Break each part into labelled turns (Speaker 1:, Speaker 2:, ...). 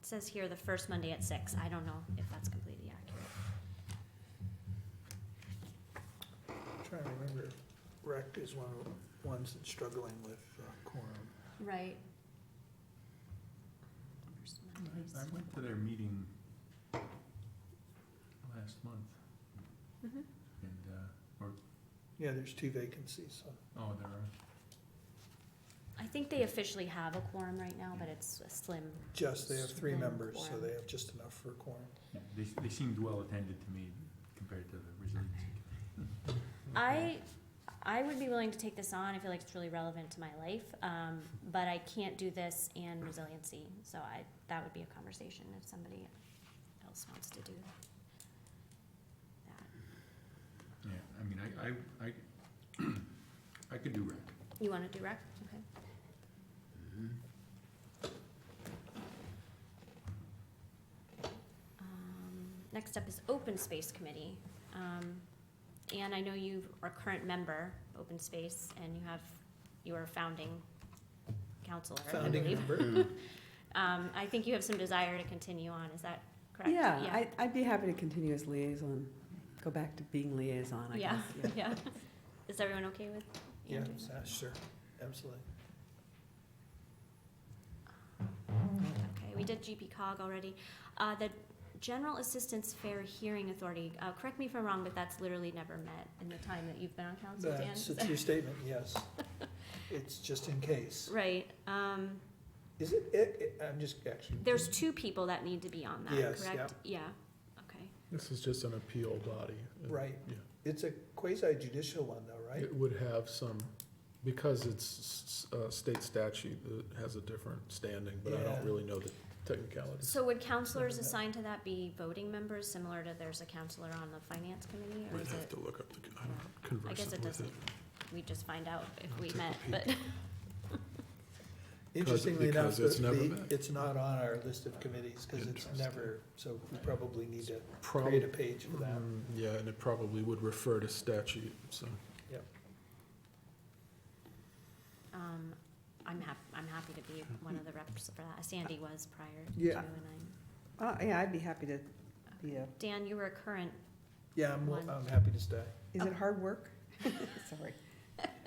Speaker 1: says here the first Monday at six. I don't know if that's completely accurate.
Speaker 2: Trying to remember, rec is one of the ones that's struggling with uh, quorum.
Speaker 1: Right.
Speaker 3: I I
Speaker 1: Mm-hmm.
Speaker 3: went to their meeting last month and, uh,
Speaker 2: Yeah, there's two vacancies, so.
Speaker 3: oh, there are,
Speaker 1: I think they officially have a quorum right now, but it's a slim.
Speaker 2: Just, they have three
Speaker 1: Slim
Speaker 2: members, so
Speaker 1: quorum.
Speaker 2: they have just enough for quorum.
Speaker 3: yeah, they, they seemed well attended to me compared to the resiliency.
Speaker 1: I, I would be willing to take this on. I feel like it's really relevant to my life. Um, but I can't do this and resiliency, so I, that would be a conversation if somebody else wants to do that.
Speaker 3: Yeah, I mean, I, I, I, I could do rec.
Speaker 1: You wanna do rec? Okay. Um, Next up is Open Space Committee. Um, Anne, I know you are a current member, Open Space, and you have, you are a founding counselor, I
Speaker 2: Founding
Speaker 1: believe.
Speaker 2: member,
Speaker 1: Um, I think you have some desire to continue on, is that correct?
Speaker 4: Yeah, I, I'd be happy to continue as liaison, go back to being liaison, I
Speaker 1: Yeah,
Speaker 4: guess. yeah.
Speaker 1: yeah. Is everyone okay with?
Speaker 2: yeah,
Speaker 1: Anne doing that?
Speaker 2: sure, absolutely.
Speaker 1: Okay, we did GP cog already. Uh, the General Assistance Fair Hearing Authority, uh, correct me if I'm wrong, but that's literally never met in the time that you've been on council, Dan?
Speaker 2: That's a true statement, yes. It's just in case.
Speaker 1: Right, um,
Speaker 2: Is it, it, it- I'm just actually.
Speaker 1: there's two people that need to be on that,
Speaker 2: Yes,
Speaker 1: correct? Yeah, okay.
Speaker 5: This is just an appeal body. and
Speaker 2: Right.
Speaker 5: Yeah.
Speaker 2: It's a quasi judicial one though, right?
Speaker 5: It would have some, because it's s- s- uh, state statute, it has a different standing, but I
Speaker 2: Yeah.
Speaker 5: don't really know the technicalities.
Speaker 1: So would counselors
Speaker 2: Never met.
Speaker 1: assigned to that be voting members, similar to there's a counselor on the finance committee, or
Speaker 5: We'd
Speaker 1: is
Speaker 5: have
Speaker 1: it,
Speaker 5: to look up the, I
Speaker 1: don't I guess it doesn't, we just find out if
Speaker 5: I'll
Speaker 1: we
Speaker 5: take a
Speaker 1: met,
Speaker 5: peek.
Speaker 1: but,
Speaker 2: Interestingly enough,
Speaker 5: because it's never
Speaker 2: the-
Speaker 5: met.
Speaker 2: it's not on our list of committees, cause it's
Speaker 5: Interesting.
Speaker 2: never, so we probably need to
Speaker 5: Probably,
Speaker 2: create a page for that.
Speaker 5: mm, yeah, and it probably would refer to statute, so.
Speaker 1: um, I'm hap- I'm happy to be one of the reps for that. Sandy was prior to, and
Speaker 2: Yeah.
Speaker 1: I'm
Speaker 4: Uh, yeah, I'd be happy to be a,
Speaker 1: Dan, you were a current,
Speaker 2: Yeah, I'm,
Speaker 1: One.
Speaker 2: I'm happy to stay.
Speaker 4: is it hard work? Sorry.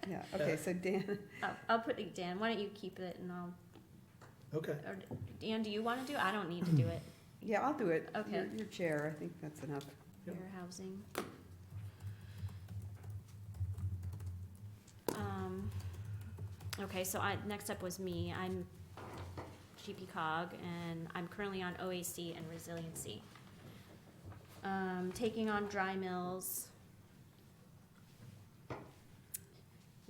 Speaker 4: Yeah, okay, so Dan,
Speaker 1: oh, I'll put it, Dan, why don't you keep it and I'll,
Speaker 2: Okay,
Speaker 1: or Dan, do you wanna do, it? I don't need to do it,
Speaker 4: yeah, I'll do it.
Speaker 1: Okay.
Speaker 4: You're- You're chair, I think that's enough.
Speaker 2: Yep.
Speaker 1: fair housing. Um, okay, so I, next up was me, I'm GP cog and I'm currently on OAC and resiliency. Um, taking on dry mills.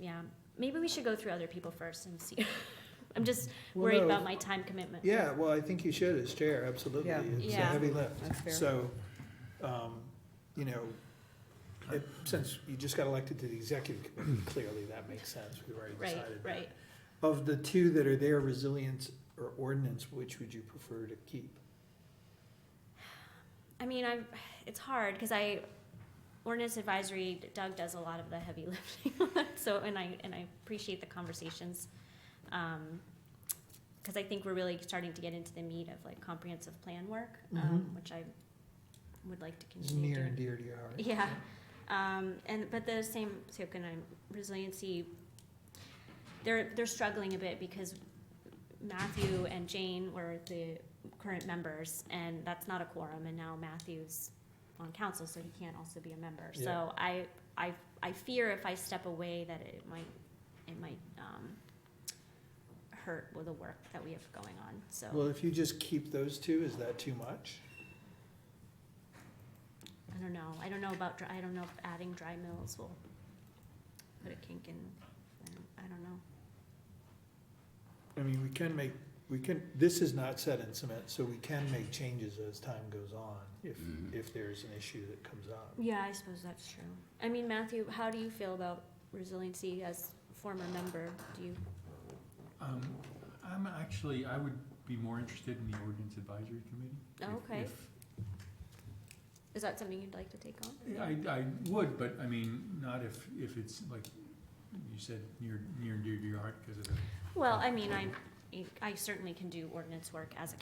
Speaker 1: Yeah, maybe we should go through other people first and see, I'm just
Speaker 2: Well,
Speaker 1: worried
Speaker 2: no,
Speaker 1: about
Speaker 2: if-
Speaker 1: my time commitment.
Speaker 2: yeah, well, I think you should as chair, absolutely.
Speaker 4: Yeah.
Speaker 2: It's a
Speaker 1: Yeah.
Speaker 2: heavy lift.
Speaker 4: That's fair.
Speaker 2: So, um, you know, it, since you just got elected to the executive committee, clearly that makes sense, we already
Speaker 1: Right,
Speaker 2: decided that.
Speaker 1: right.
Speaker 2: Of the two that are there, resilience or ordinance, which would you prefer to keep?
Speaker 1: I mean, I, it's hard because I, ordinance advisory, Doug does a lot of the heavy lifting. on that, so, and I, and I appreciate the conversations. Um, because I think we're really starting to get into the meat of like comprehensive plan work, um,
Speaker 2: Mhm.
Speaker 1: which I would like to
Speaker 2: It's
Speaker 1: continue
Speaker 2: near and
Speaker 1: doing.
Speaker 2: dear to your heart.
Speaker 1: Yeah, um, and, but the same token, I'm resiliency, they're, they're struggling a bit because Matthew and Jane were the current members, and that's not a quorum, and now Matthew's on council, so he can't also be a member. So
Speaker 2: Yeah.
Speaker 1: I, I, I fear if I step away that it might, it might, um, hurt with the work that we have going on, so,
Speaker 2: Well, if you just keep those two, is that too much?
Speaker 1: I don't know, I don't know about, dry- I don't know if adding dry mills will put a kink in, I don't- I don't know.
Speaker 2: I mean, we can make, we can, this is not set in cement, so we can make changes as time goes on, if, if there's an issue that comes up.
Speaker 1: Yeah, I suppose that's true. I mean, Matthew, how do you feel about resiliency as former member? Do you,
Speaker 3: Um, I'm actually, I would be more interested in the ordinance advisory committee.
Speaker 1: Oh,
Speaker 3: if-
Speaker 1: okay.
Speaker 3: if-
Speaker 1: is that something you'd like to take on?
Speaker 3: I, I would, but I mean, not if, if it's like, you said, near, near and dear to your heart because of the
Speaker 1: Well, I mean, I, I certainly can do ordinance work as a